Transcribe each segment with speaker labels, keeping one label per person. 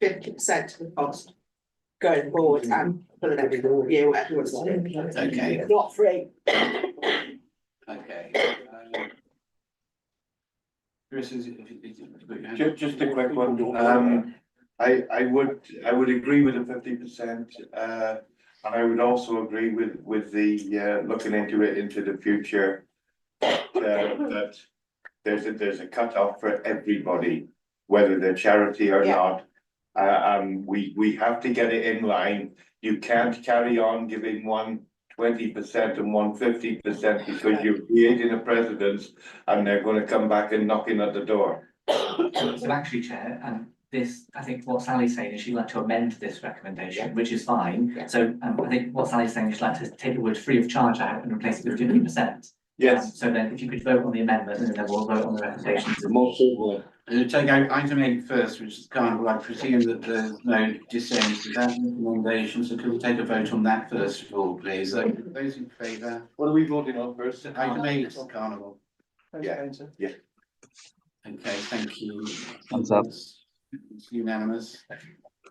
Speaker 1: fifty percent of the cost going forward
Speaker 2: Mm-hmm.
Speaker 1: and for the next year, whatever you want to do.
Speaker 3: Okay.
Speaker 1: Not free.
Speaker 3: Okay. um, Chris, is it- if you- if you-
Speaker 2: Ju- just a quick one, um, I, I would, I would agree with the fifty percent, uh, and I would also agree with, with the, uh, looking into it into the future. uh, that there's a, there's a cutoff for everybody, whether they're charity or
Speaker 1: Yeah.
Speaker 2: not. Uh, um, we, we have to get it in line, you can't carry on giving one twenty percent and one fifty percent because you're creating a precedence. And they're gonna come back and knocking at the door.
Speaker 4: So actually, Chair, and this, I think what Sally's saying is she'd like to amend this recommendation, which is
Speaker 1: Yeah.
Speaker 4: fine. So um I think what Sally's saying is she'd like to take the word free of charge out and replace it with fifty percent. So then if you could vote on the amendment and then we'll vote on the recommendations.
Speaker 3: Uh, take out item eight first, which is carnival, I presume that there's no dissent to that recommendation, so could we take a vote on that first of all, please? So Those in favour,
Speaker 2: What are we voting on first?
Speaker 3: item eight, carnival.
Speaker 2: Yeah, yeah.
Speaker 3: Okay, thank you.
Speaker 5: Thumbs up.
Speaker 3: It's unanimous.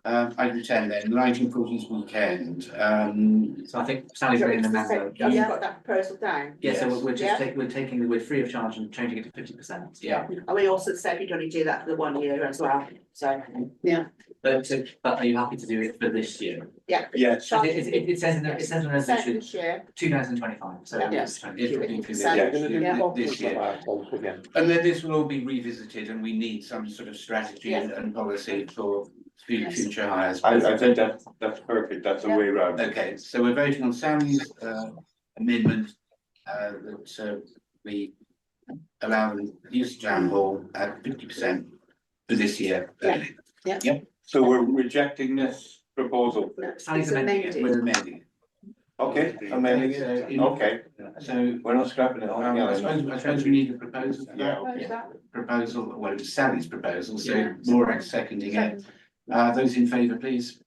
Speaker 3: Um, item ten then, lighting for this weekend, um,
Speaker 4: So I think Sally's made an amendment.
Speaker 1: Have you got that proposal down?
Speaker 4: Yeah, so we're- we're
Speaker 1: Yeah.
Speaker 4: just taking, we're taking the word free of charge and changing it to fifty percent.
Speaker 3: yeah,
Speaker 1: And we also said you'd only do that for the one year as well, so. Yeah.
Speaker 4: But but are you happy to do it for this year?
Speaker 1: Yeah.
Speaker 2: Yes,
Speaker 4: It it it- it says in the, it says in the
Speaker 1: Set
Speaker 4: resolution,
Speaker 1: this year,
Speaker 4: two thousand twenty five, so.
Speaker 1: Yeah.
Speaker 4: it's 20.
Speaker 3: it would be for
Speaker 1: Yeah,
Speaker 2: I'm
Speaker 3: this
Speaker 2: gonna do
Speaker 3: year- this year.
Speaker 2: again.
Speaker 3: And then this will all be revisited and we need some sort of strategy
Speaker 1: Yes.
Speaker 3: and and policy for fu-
Speaker 1: Yes.
Speaker 3: future hires.
Speaker 2: I, I think that, that's perfect, that's the way round.
Speaker 3: Okay, so we're voting on Sally's uh amendment uh that uh we allow the use of town hall at fifty percent for this year.
Speaker 1: Yeah.
Speaker 2: So we're rejecting this proposal,
Speaker 1: No,
Speaker 4: Sally's
Speaker 1: it's
Speaker 4: amending it
Speaker 1: amended.
Speaker 3: We're amending.
Speaker 2: okay, amending
Speaker 3: So
Speaker 2: it,
Speaker 3: in-
Speaker 2: okay,
Speaker 3: So
Speaker 2: we're not scrapping it,
Speaker 3: um, I suppose, I suppose we need a proposal.
Speaker 2: Yeah.
Speaker 1: Where's Oh, that?
Speaker 3: Proposal, well, it's Sally's proposal, so
Speaker 1: Yeah.
Speaker 3: Laura seconding it. Uh those in favour, please.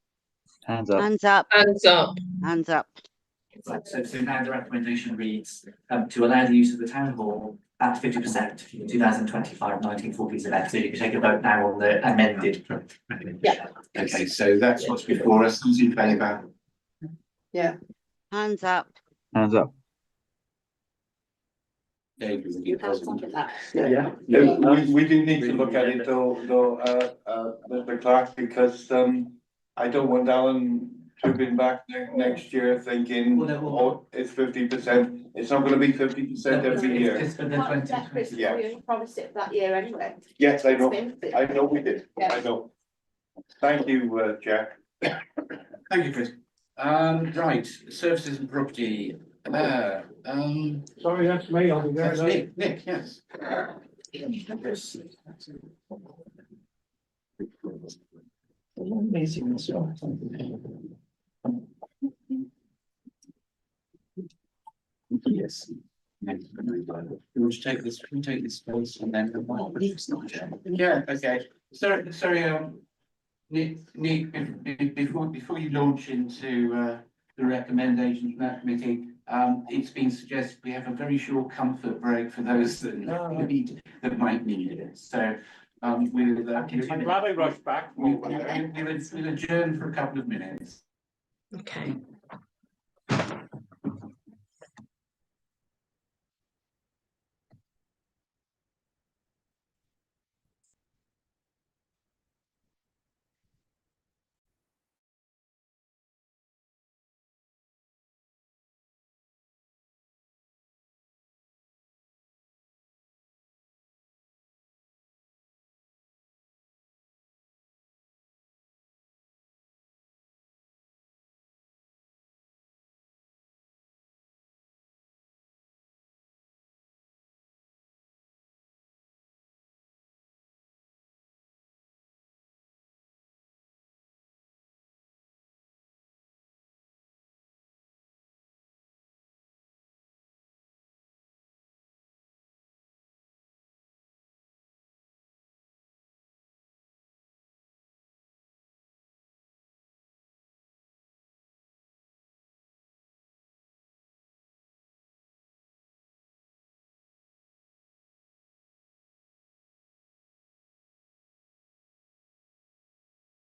Speaker 5: Hands up.
Speaker 6: Hands up,
Speaker 7: Hands up,
Speaker 6: hands up,
Speaker 4: Right, so so now the recommendation reads um to allow the use of the town hall at fifty percent for the 2025-1940s event, so you can take a vote now on the amended. pro- recommendation.
Speaker 1: Yeah.
Speaker 3: Okay, so that's what's before us, those in favour,
Speaker 6: hands up,
Speaker 5: Hands up.
Speaker 3: David will
Speaker 1: You
Speaker 3: give
Speaker 1: have
Speaker 3: us.
Speaker 1: something like that.
Speaker 2: Yeah, we, we do need to look at it though, though, uh, uh, Mr. Clark, because, um, I don't want Alan trooping back ne- next year thinking,
Speaker 4: Well, no, well-
Speaker 2: oh, it's fifty percent, it's not gonna be fifty percent every
Speaker 4: It's-
Speaker 2: year.
Speaker 4: It's for the
Speaker 1: Can't
Speaker 4: 20
Speaker 1: expect Christmas, we
Speaker 2: Yeah.
Speaker 1: only promised it that year anyway.
Speaker 2: Yes, I know.
Speaker 1: It's been-
Speaker 2: I know we did, I
Speaker 1: Yeah.
Speaker 2: know. Thank you, uh, Jack.
Speaker 3: Thank you, Chris. Um, right, services and property, uh, um.
Speaker 8: Sorry, that's me, I'll be very
Speaker 3: That's
Speaker 8: late.
Speaker 3: Nick, Nick, yes. Yes. We'll take this, we take this first and then. Yeah, okay, sorry, sorry, um. Nick, Nick, be- be- before, before you launch into, uh, the recommendations from that committee, um, it's been suggested we have a very short comfort break for those that need, that might need it, so, um, we'll. uh,
Speaker 8: I'm glad I rushed back.
Speaker 3: We, we, we'll we'll adjourn for a couple of minutes.
Speaker 7: okay.